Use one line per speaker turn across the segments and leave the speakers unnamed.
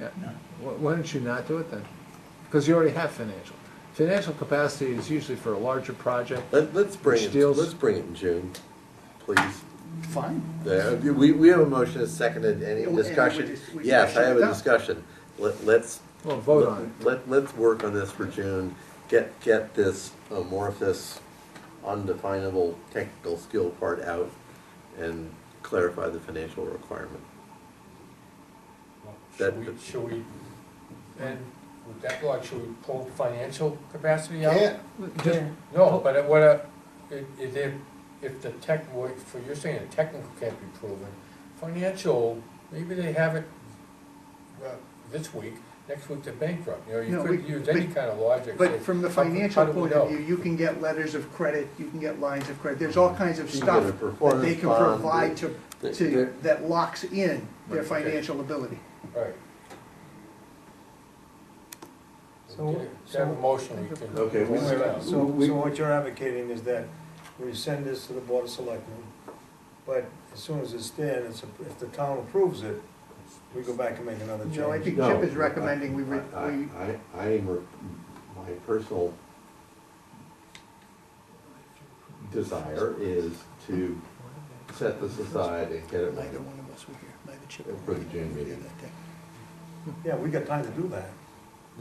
Yeah, Why- why don't you not do it then? Because you already have financial. Financial capacity is usually for a larger project.
Let, let's bring it,
Steals-
let's bring it in June, please.
Fine.
There, we, we have a motion, a second, and any
And we-
discussion?
and we- we-
Yes, I have a
Yeah.
discussion. Let, let's.
Well, vote on it.
Let, let's work on this for June, get, get this amorphous, undefinable technical skill part out and clarify the financial requirement.
Well,
That-
Should we, should we, and with that law, should we pull financial capacity out?
Yeah.
Just-
No, but it- what, uh, i- if, if, if the tech, what, for, you're saying the technical can't be proven, financial, maybe they have it, uh, this week, next week they're bankrupt, you know, you
No,
could
we-
use any
but-
kind of logic. say,
But from the
how could-
financial
how do we
point of
know?
view, you can get letters of credit, you can get lines of credit, there's all kinds of
You can get
stuff
a
that they
performance
can
bond,
provide to,
they-
to,
they're-
that locks in their
Okay.
financial ability.
Right.
So-
Get a- Have a motion, we can.
Okay, we-
Wait, wait, wait.
So, so what you're advocating is that we send this to the Board of Selectmen, but as soon as it's there, and it's, a- if the town approves it, we go back and make another change.
No, I think
No,
Chip is recommending we, re-
I,
we,
I, I am, re- my personal desire is to set this aside and get it
Neither
right.
one of us were here, neither Chip.
Yeah,
nor
for the
I were
June
here
meeting.
that day.
Yeah, we got time to do that.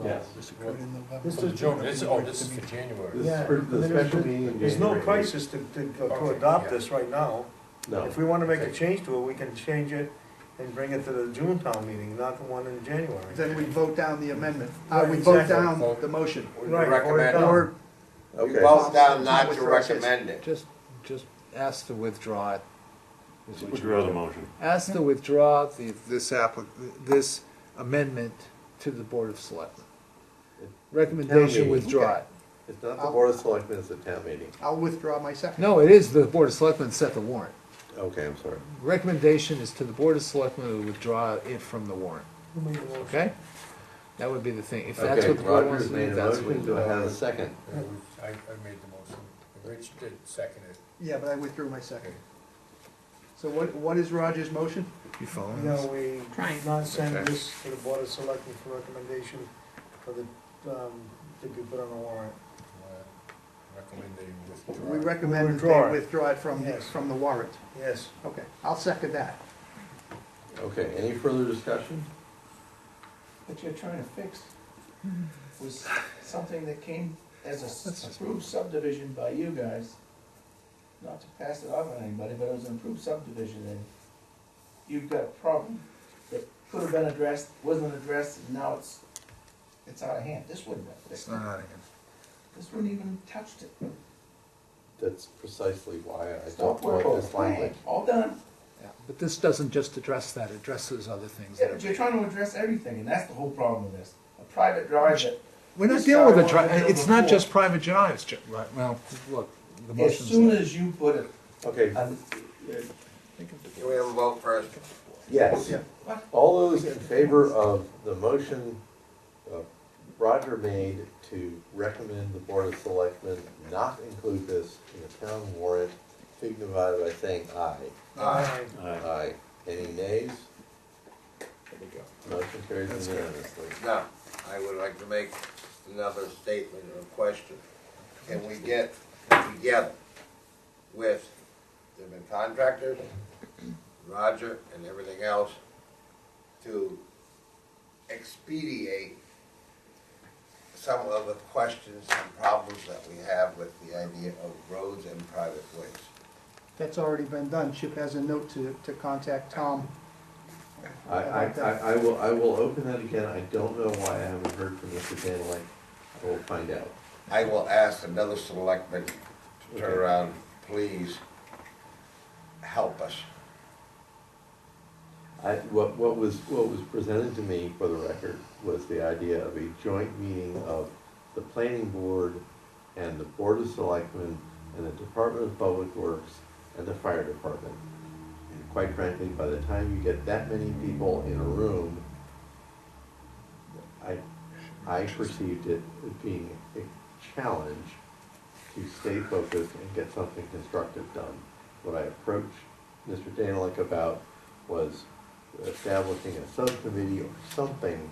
Yes.
This occurred in November.
This
For
is
June, this, oh, this is
The
for
meeting.
January.
This is for the special meeting in
There's no
January.
crisis to, to, to
Okay,
adopt
yeah.
this right now.
No,
If we wanna make a change to it, we can change it and bring it to the June town meeting, not the one in January.
then we vote down the amendment, uh, we
Right,
vote
exactly.
down
Vote.
the motion.
Right, vote
Recommend.
down.
Or,
okay.
Vote down
Not
not
with
to
process.
recommend it.
Just, just ask to withdraw it. is what
Withdraw
you-
the motion.
Ask to withdraw the, this applic, this amendment to the Board of Selectmen.
Tell
Recommendation,
me.
withdraw it.
It's not the board of selectmen, it's the town meeting.
I'll withdraw my second.
No, it is the Board of Selectmen set the warrant.
Okay, I'm sorry.
Recommendation is to the Board of Selectmen to withdraw it from the warrant,
Who made the motion?
okay? That would be the thing, if that's
Okay,
what the board wants
Roger's
to do,
made a
that's what.
motion, do I have a second?
Yeah, we- I, I made the motion, Rich did second it.
Yeah, but I withdrew my second. So what, what is Roger's motion?
You following
No,
us?
we
Trying.
not send
Okay.
this to the Board of Selectmen for recommendation for the, um, to be put on the warrant.
Uh, Recommend that you withdraw.
We recommend that
Withdraw
they
it.
withdraw it from,
Yes.
from the warrant.
Yes.
Okay, I'll second that.
Okay, any further discussion?
That you're trying to fix
Hmm.
was something that came as a s- approved subdivision by you guys. Not to pass it off on anybody, but it was an approved subdivision and you've got a problem that could have been addressed, wasn't addressed, and now it's, it's out of hand. This wouldn't have
It's
fixed it.
not out of hand.
This wouldn't even touched it.
That's precisely why I don't
Stop work
like
over
this language.
plan, all done.
Yeah, But this doesn't just address that, it addresses other things.
Yeah, but you're trying to address everything and that's the whole problem with this. A private drive that
We're not
This
dealing with a
guy
dri,
wanted to do
it's not
before.
just private drives, Ju- right, well, look, the
As
motion's.
soon
there.
as you put it, uh,
Okay,
on
Can we have a vote first?
yes. All those in favor of the motion uh, Roger made to recommend the board of selectmen not include this in the town warrant, signify by saying aye.
Aye.
Aye.
Aye. Any nays?
There we go.
Motion carries unanimously.
Now, I would like to make another statement or question. Can we get together with the contractors, Roger and everything else, to expedite some of the questions and problems that we have with the idea of roads and private ways?
That's already been done. Chip has a note to, to contact Tom.
I, I, I I will, I will open that again, I don't know why I haven't heard from Mr. Danilek, I will find out.
I will ask another selectman to turn
Okay.
around, please help us.
I, what, what was, what was presented to me for the record was the idea of a joint meeting of the planning board and the board of selectmen and the Department of Public Works and the fire department. And quite frankly, by the time you get that many people in a room, I, I perceived it as being a challenge to stay focused and get something constructive done. What I approached Mr. Danilek about was establishing a subcommittee or something